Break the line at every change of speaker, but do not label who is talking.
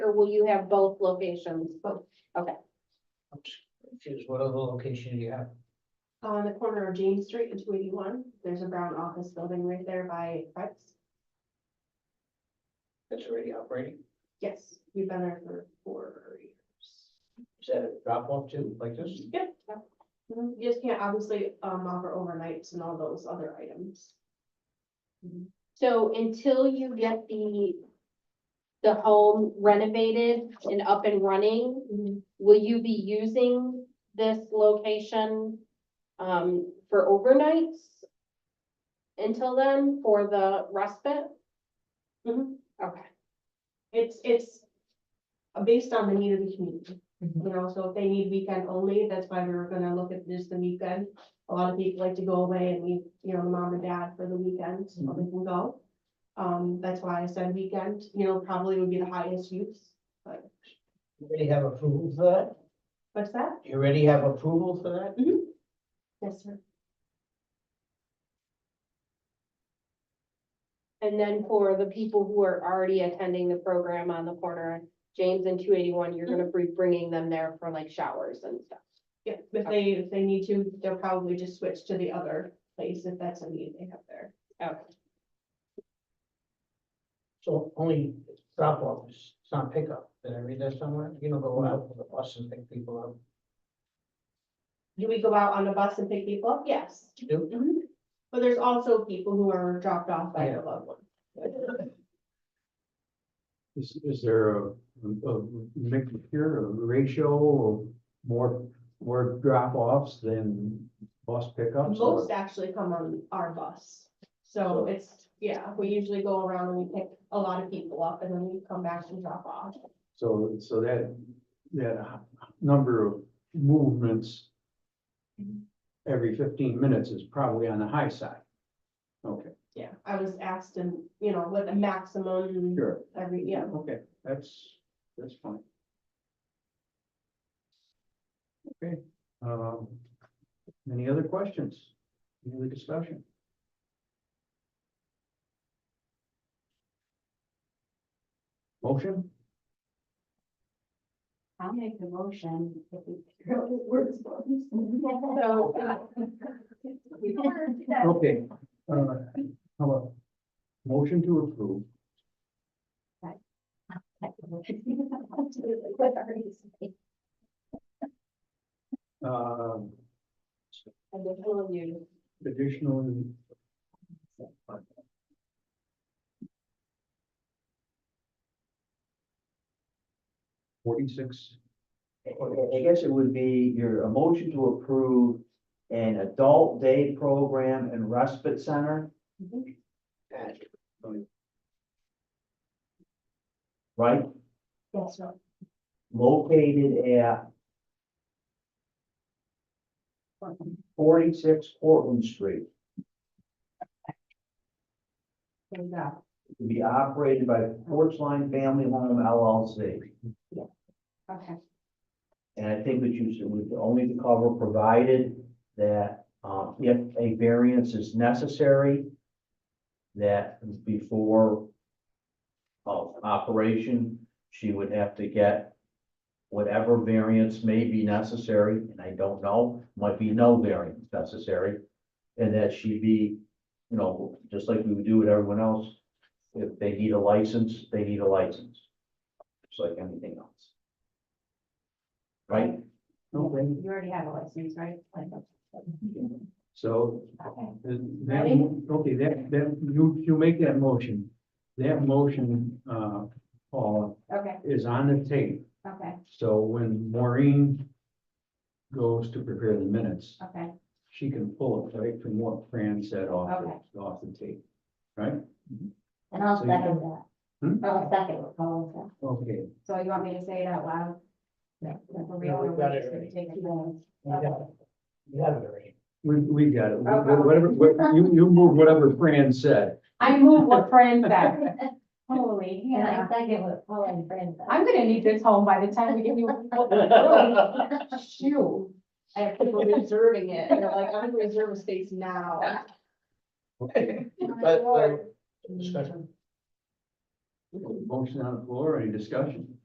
or will you have both locations? Both.
Choose whatever location you have.
On the corner of James Street and two eighty-one, there's a brown office building right there by Fred's.
That's already operating.
Yes, we've been there for four years.
Is that a drop off too, like this?
Mhm, You just can't obviously um offer overnights and all those other items.
So until you get the, the home renovated and up and running, will you be using this location um, for overnights? Until then, for the respite?
Mhm.
Okay,
It's, it's based on the need of the community. You know, so if they need weekend only, that's why we were gonna look at just the weekend. A lot of people like to go away and leave, you know, the mom and dad for the weekend, so they can go. Um, that's why I said weekend, you know, probably would be the highest use.
You already have approval for that?
What's that?
You already have approval for that?
Yes, sir.
and then for the people who are already attending the program on the corner, of James and two eighty-one, you're gonna be bringing them there for like showers and stuff.
Yeah, if they, if they need to, they'll probably just switch to the other place if that's a need they have there.
Okay,
So only drop off, it's not pickup. Did I read that somewhere? You don't go out with the bus and pick people up.
Do we go out on a bus and pick people up? Yes.
You do?
Mhm. But there's also people who are dropped off by their loved ones.
Is, is there a, a mix here, a ratio of more, more drop offs than bus pickups? or-
Most actually come on our bus. So
So-
it's, yeah, we usually go around and we pick a lot of people up and then we come back and drop off.
So, so that, that number of movements every fifteen minutes is probably on the high side. Okay,
Yeah, I was asked and, you know, what the maximum
sure.
every, yeah.
Okay, that's, that's fine. Okay, um, any other questions? Any other discussion? Motion?
I'll make the motion. if we figure out what works for us.
so
Okay, uh, how about motion to approve?
What are you saying?
Um,
I'm just telling you.
additional. Forty-six,
I I guess it would be your a motion to approve an adult day program and respite center, right?
Yes, right.
Located at forty-six Portland Street.
There you go.
To be operated by Porch Line Family Home LLC.
Okay.
And I think that you should, would only the cover provided that, um, if a variance is necessary, that before of operation, she would have to get whatever variance may be necessary, and I don't know, might be no variance necessary. And that she be, you know, just like we would do with everyone else, if they need a license, they need a license. Just like anything else. Right?
okay,
You already have a license, right? Like,
so,
okay.
uh, that, okay, that, that, you, you make that motion. That motion, uh, Paul,
Okay,
is on the tape,
okay,
so when Maureen goes to prepare the minutes,
okay,
she can pull it right from what Fran said off, the- off the tape, right?
and I'll
So
second
you-
that.
Hmm?
I'll second what Paul said.
Okay,
So you want me to say it out loud? Yeah. For real,
No, we've
or
got
we're
it
just gonna
already.
take it down?
You have it You have it already.
we, we got it, Wh- wh- whatever, wh- you, you move whatever Fran said.
I move what Fran said. Holy
And I second what Paul and Fran said.
I'm gonna need this home by the time we give you. Shoot. I have people reserving it, and they're like, I'm gonna reserve a space now.
Okay,
But, uh, discussion?
motion on the floor, any discussion?